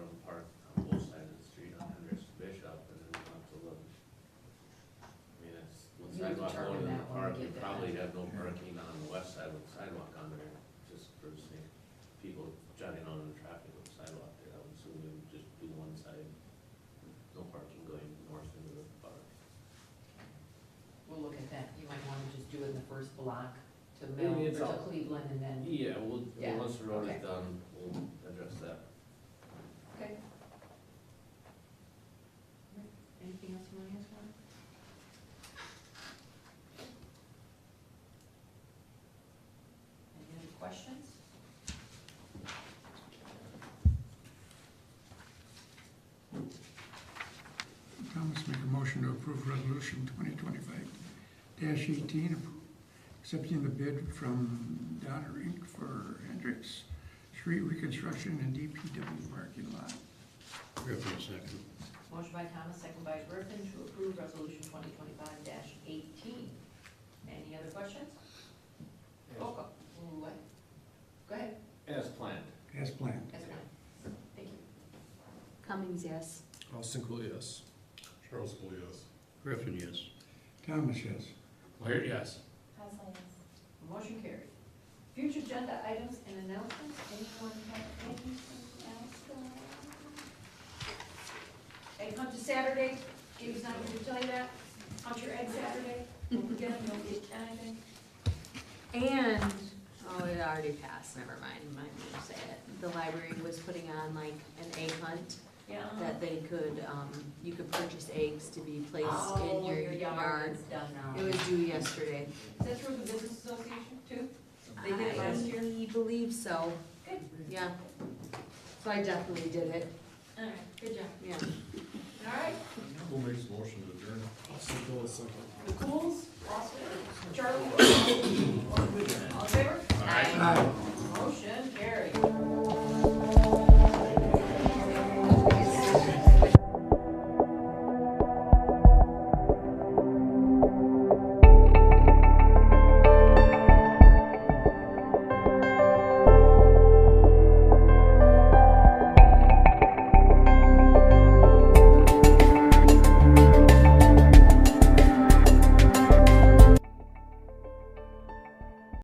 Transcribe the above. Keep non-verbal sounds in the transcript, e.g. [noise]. the Maybe mill or it's to all- Cleveland and then, Yeah, we'll, Yeah, once the road okay. is done, we'll address that. okay. Anything else you want to ask Mark? Any other questions? Thomas make a motion to approve resolution twenty twenty-five eighteen, accepting the bid from Donner Inc. for Hendricks Street reconstruction and DPW parking lot. Griffin second. Motion by Thomas, second by Griffin, to approve resolution twenty twenty-five eighteen. Any other questions? Roll call. Ooh, what? Go ahead, As planned. As planned. that's fine. Thank you. Cummings, yes. Austin Cool, yes. Charles Cole, yes. Griffin, yes. Thomas, yes. Laird, yes. Motion carried. Future agenda items and announcements, anyone have anything else to add? Egg hunt is Saturday, Gabe's not here to tell you that, hunt your egg Saturday, don't forget, them, don't get anything. And, oh, it already passed, never mind, I might not say it. The library was putting on like an egg hunt Yeah. that they could, um, you could purchase eggs to be placed in Oh, your yard. is Done now. It was due yesterday. Is that through the business association too? They did it last year? I believe so, Good. yeah. So I definitely did it, All right, good job. yeah. All right, Who makes the motion to adjourn? Austin Cool, second. [coughs] the Cools, Austin, Charlie,